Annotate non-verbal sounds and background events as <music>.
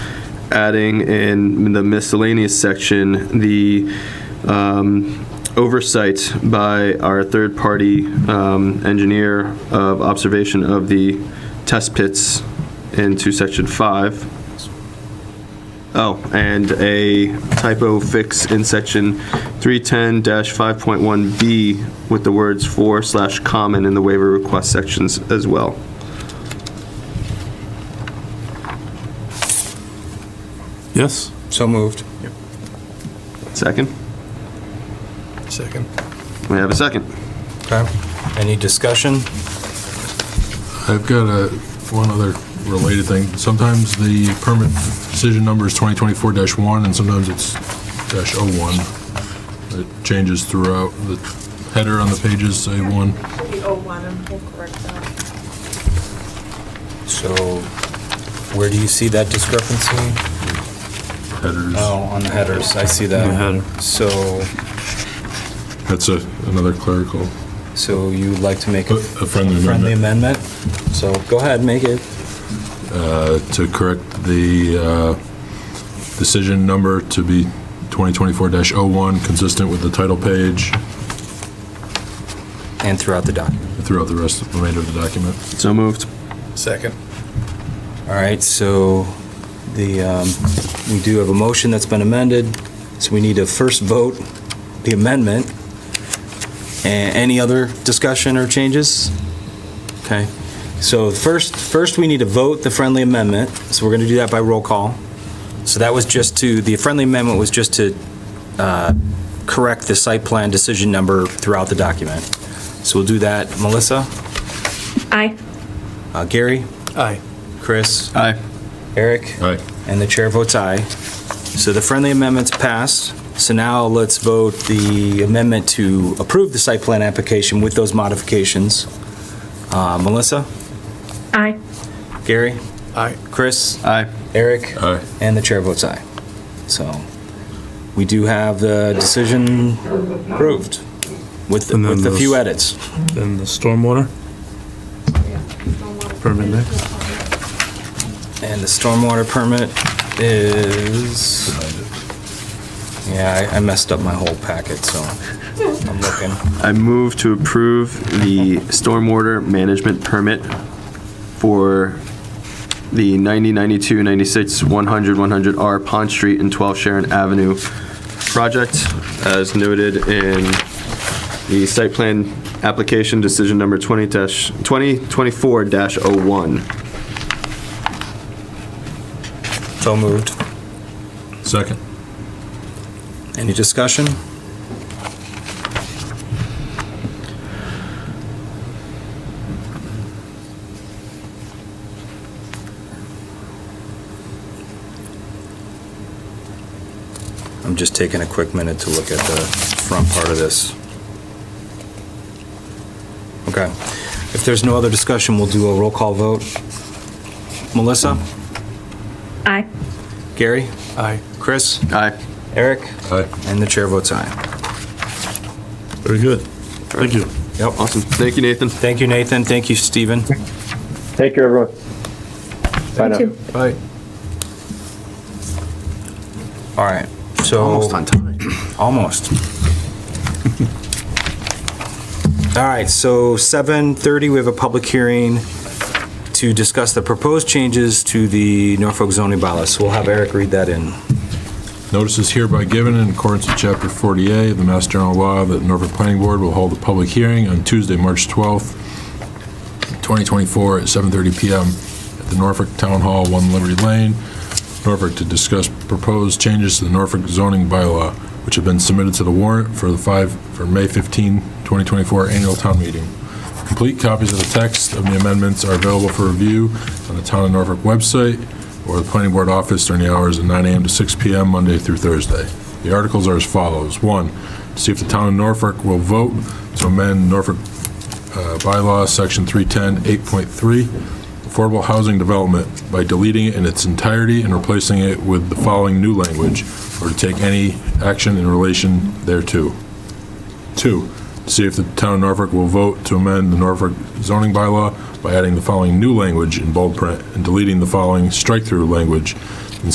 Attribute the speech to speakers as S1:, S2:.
S1: adding in the miscellaneous section the um, oversight by our third-party um, engineer of observation of the test pits into section five. Oh, and a typo fix in section 310-5.1B with the words "for" slash "common" in the waiver request sections as well.
S2: Yes?
S3: So moved.
S1: Second?
S3: Second.
S1: We have a second.
S3: Okay. Any discussion?
S2: I've got a, one other related thing. Sometimes the permit decision number is 2024-1, and sometimes it's dash "-01." It changes throughout. The header on the pages, say one.
S4: The old one, and we'll correct that.
S3: So where do you see that discrepancy?
S2: headers.
S3: Oh, on the headers, I see that. So,
S2: That's a, another clerical.
S3: so you'd like to make
S2: A-
S3: a
S2: a friendly
S3: friendly amendment? So go ahead, make it.
S2: uh, to correct the uh, decision number to be 2024-01, consistent with the title page
S3: And throughout the document.
S2: throughout the rest of the remainder of the document.
S1: So moved.
S3: Second. All right, so the, um, we do have a motion that's been amended, so we need to first vote the amendment. A- Any other discussion or changes? Okay, so first, first we need to vote the friendly amendment, so we're going to do that by roll call. So that was just to, the friendly amendment was just to uh, correct the site plan decision number throughout the document. So we'll do that. Melissa?
S4: Aye.
S3: Uh, Gary?
S5: Aye.
S3: Chris?
S1: Aye.
S3: Eric?
S2: All right,
S3: And the chair votes aye. So the friendly amendment's passed. So now let's vote the amendment to approve the site plan application with those modifications. Uh, Melissa?
S4: Aye.
S3: Gary?
S5: Aye.
S3: Chris?
S1: Aye.
S3: Eric?
S2: all right.
S3: And the chair votes aye. So we do have the decision approved with,
S5: And then
S3: with a few
S5: those-
S3: edits.
S5: Then the stormwater? Permit there?
S3: And the stormwater permit is, yeah, I I messed up my whole packet, so I'm looking.
S1: I move to approve the stormwater management permit for the 90, 92, 96, 100, 100R Pond Street and 12 Sharon Avenue project as noted in the site plan application decision number 20 2024-01.
S3: So moved.
S2: Second.
S3: Any discussion? I'm just taking a quick minute to look at the front part of this. Okay. If there's no other discussion, we'll do a roll call vote. Melissa?
S4: Aye.
S3: Gary?
S5: Aye.
S3: Chris?
S1: Aye.
S3: Eric?
S2: All right.
S3: And the chair votes aye.
S5: Very good. Thank you.
S3: Yep.
S1: Awesome. Thank you, Nathan.
S3: Thank you, Nathan. Thank you, Stephen.
S6: Take care, everyone. Bye now.
S4: Two.
S5: Bye.
S3: All right, so.
S1: Almost on time.
S3: <clears throat> Almost. All right, so 7:30, we have a public hearing to discuss the proposed changes to the Norfolk zoning bylaws. So We'll have Eric read that in.
S2: Notice is hereby given in accordance with Chapter 48 of the Mass General Law that the Norfolk Planning Board will hold a public hearing on Tuesday, March 12th, 2024, at 7:30 PM at the Norfolk Town Hall, 1 Liberty Lane, Norfolk, to discuss proposed changes to the Norfolk zoning bylaw, which have been submitted to the warrant for the 5, for May 15, 2024 annual town meeting. Complete copies of the text of the amendments are available for review on the Town of Norfolk website or the Planning Board office during the hours of 9 AM to 6 PM, Monday through Thursday. The articles are as follows. One, to see if the Town of Norfolk will vote to amend Norfolk uh, bylaw, Section 310, 8.3, affordable housing development by deleting it in its entirety and replacing it with the following new language, or to take any action in relation thereto. Two, see if the town of Norfolk will vote to amend the Norfolk zoning bylaw by adding the following new language in bold print and deleting the following strike-through language